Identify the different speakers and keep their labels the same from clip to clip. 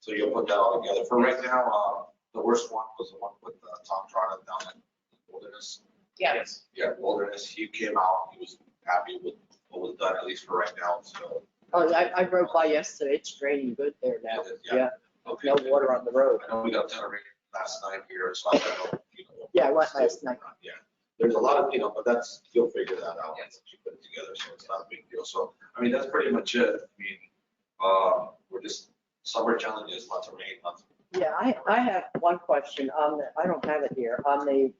Speaker 1: So you'll put that all together. For right now, uh, the worst one was the one with uh, Tom Trotta down at Wilderness.
Speaker 2: Yeah,
Speaker 1: Yeah, Wilderness, he came out, he was happy with what was done, at least for right now, so.
Speaker 3: Oh, I, I drove by yesterday, it's draining good there now, yeah,
Speaker 1: Okay.
Speaker 3: no water on the road.
Speaker 1: I know we got a ton of rain last night here, so I don't know, you know.
Speaker 3: Yeah, it was last night.
Speaker 1: Yeah, there's a lot of, you know, but that's, you'll figure that out
Speaker 2: Yes.
Speaker 1: once you put it together, so it's not a big deal. So, I mean, that's pretty much it. I mean, uh, we're just, summer challenges, lots of rain, lots of
Speaker 3: Yeah, I, I have one question on the, I don't have it here, on the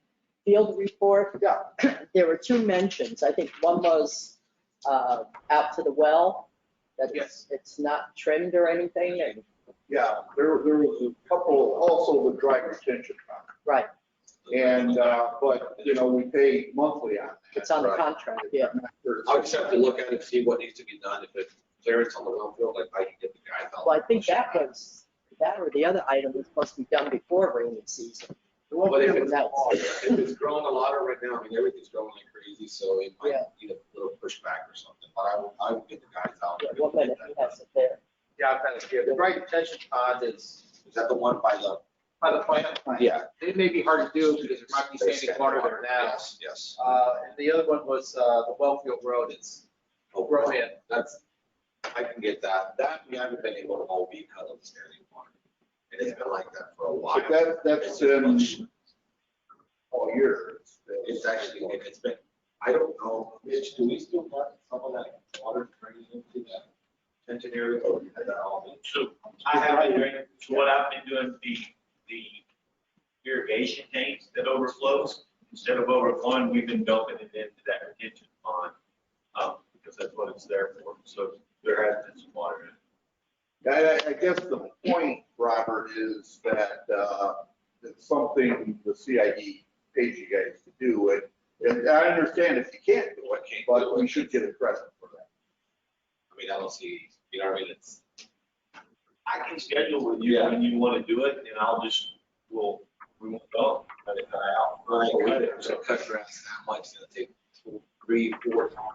Speaker 3: field report. There were two mentions, I think one was, uh, out to the well, that it's, it's not trimmed or anything, and-
Speaker 4: Yeah, there, there was a couple also with dry retention. pond.
Speaker 3: right,
Speaker 4: And, uh, but, you know, we pay monthly on that.
Speaker 3: it's on the
Speaker 1: Right.
Speaker 3: contract, yeah.
Speaker 1: I'll just have to look at it, see what needs to be done, if it's clearance on the well field, like I can get the guy. out.
Speaker 3: Well, I think that was, that or the other item was supposed to be done before rainy season.
Speaker 1: But if it's,
Speaker 3: That-
Speaker 1: if it's growing a lot right now, I mean, everything's growing like crazy, so it might
Speaker 3: Yeah.
Speaker 1: need a little pushback or something, but I will, I will get the guys out.
Speaker 3: Yeah, One minute, he has it there.
Speaker 5: Yeah, I've got it here. The right retention pond is,
Speaker 1: Is that the one by the?
Speaker 5: by the plant,
Speaker 1: Yeah.
Speaker 5: it may be hard to do because there might be standing water there now.
Speaker 1: Yes, yes.
Speaker 5: Uh, and the other one was, uh, the Wellfield Road, it's
Speaker 1: Oh,
Speaker 5: Rohan.
Speaker 1: That's, I can get that. That, we haven't been able to all week because of the standing water. And it's been like that for a while.
Speaker 4: But that, that's um, in all year.
Speaker 1: It's actually, it's been, I don't know, Mitch, do we still got some of that water turning into that tension area or is that all been?
Speaker 6: So I have been doing, so what I've been doing, the, the irrigation tanks that overflows, instead of overflowing, we've been dumping it into that retention pond. Um, because that's what it's there for. So there has been some water in it.
Speaker 4: I, I- I guess the point, Robert, is that, uh, it's something the CID pays you guys to do. And, and I understand if you can't do it, but we should get a credit for that.
Speaker 1: I mean, I don't see, you know what I mean? It's,
Speaker 6: I can schedule with you when you want to do it and I'll just, we'll, we won't go, let it die out.
Speaker 1: Right, it's gonna cut grass that much, it's gonna take two, three, four times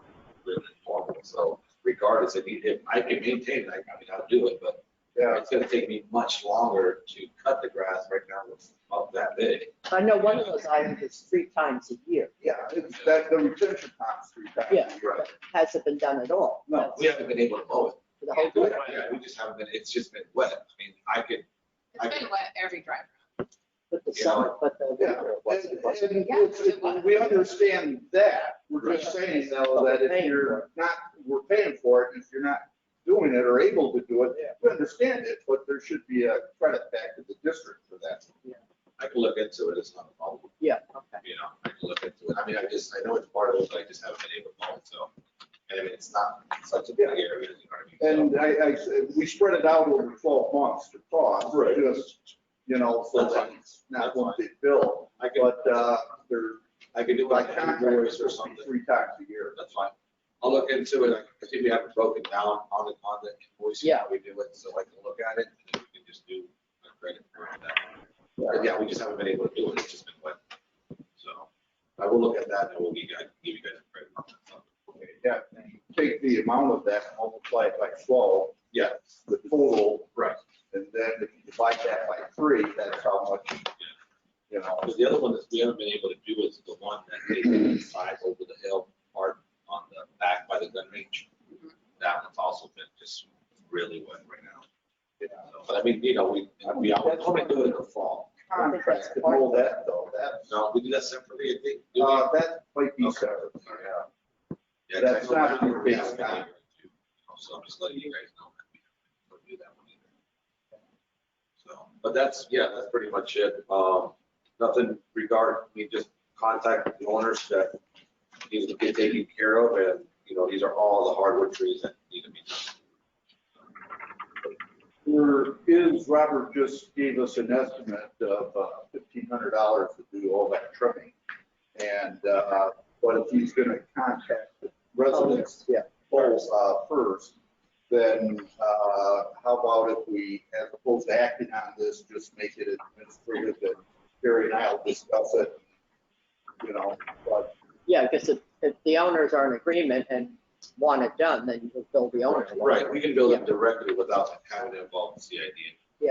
Speaker 1: than normal, so regardless, if you, if I can maintain, it, I, I mean, I'll do it, but
Speaker 4: Yeah,
Speaker 1: it's gonna take me much longer to cut the grass right now, it's up that big.
Speaker 3: I know one of those items is three times a year,
Speaker 4: yeah, it's that, the retention pond's three times
Speaker 3: Yeah.
Speaker 4: a year.
Speaker 3: hasn't been done at all.
Speaker 4: No,
Speaker 1: We haven't been able to mow it.
Speaker 3: For the whole
Speaker 1: Yeah,
Speaker 3: year.
Speaker 1: we just haven't been, it's just been wet, I mean, I could, I-
Speaker 2: it's been wet every drive.
Speaker 3: But the
Speaker 1: You
Speaker 3: summer, but the
Speaker 4: Yeah,
Speaker 3: winter, it
Speaker 4: And-
Speaker 3: wasn't, it wasn't.
Speaker 4: and it's- it- We understand that, we're just saying though, that if you're not, we're paying for it, and if you're not doing it or able to do it, we understand it, but there should be a credit back to the district for that.
Speaker 1: I could look into it, it's not a problem,
Speaker 3: Yeah, okay.
Speaker 1: you know, I could look into it, I mean, I just, I know it's part of it, but I just haven't been able to mow it, so. And I mean, it's not such a big area, you know what I mean?
Speaker 4: And I, I, said, we spread it out over twelve months to cost,
Speaker 1: Right.
Speaker 4: just, you know, so that it's not one big bill,
Speaker 1: I could-
Speaker 4: but, uh, they're,
Speaker 1: I could do
Speaker 4: by
Speaker 1: like
Speaker 4: contract,
Speaker 1: categories or something.
Speaker 4: three times a year.
Speaker 1: That's fine. I'll look into it. I see we have it broken down on the, on the invoice.
Speaker 3: Yeah.
Speaker 1: how We do it, so I can look at it and then we can just do a credit for that. But yeah, we just haven't been able to do it. It's just been wet. So I will look at that and we'll give you guys, give you guys a credit on that. So,
Speaker 4: Yeah, and you take the amount of that, multiply it by twelve.
Speaker 1: Yeah.
Speaker 4: The total,
Speaker 1: Right.
Speaker 4: and then if you divide that by three, that's how much, you know.
Speaker 1: Because the other one that we haven't been able to do is the one that they did inside over the hill part on the back by the gun range. That one's also been just really wet right now.
Speaker 4: Yeah.
Speaker 1: So, But I mean, you know, we, we, I would hope to do it in the fall.
Speaker 4: Contract and all that though, that,
Speaker 1: No, we do that separately, I think. do we?
Speaker 4: uh, that might be
Speaker 1: Okay.
Speaker 4: separate. yeah.
Speaker 1: Yeah,
Speaker 4: that's
Speaker 1: I know
Speaker 4: not
Speaker 1: that
Speaker 4: your
Speaker 1: we
Speaker 4: big
Speaker 1: haven't
Speaker 4: guy.
Speaker 1: done it. So I'm just letting you guys know that we don't do that one either. So, but that's, yeah, that's pretty much it. Um, nothing regard, we just contact the owners that need to get taken care of and, you know, these are all the hardwood trees that need to be done.
Speaker 4: There is, Robert just gave us an estimate of uh, fifteen hundred dollars to do all that trimming. And, uh, but if he's gonna contact the residents
Speaker 3: Oh, Yeah,
Speaker 4: polls uh, first, then uh, how about if we, as opposed to acting on this, just make it administrative and Gary and I will discuss it, you know, but
Speaker 3: yeah, because if, if the owners are in agreement and want it done, then you'll bill the owner.
Speaker 1: Right, we can build it directly without having to involve the CID.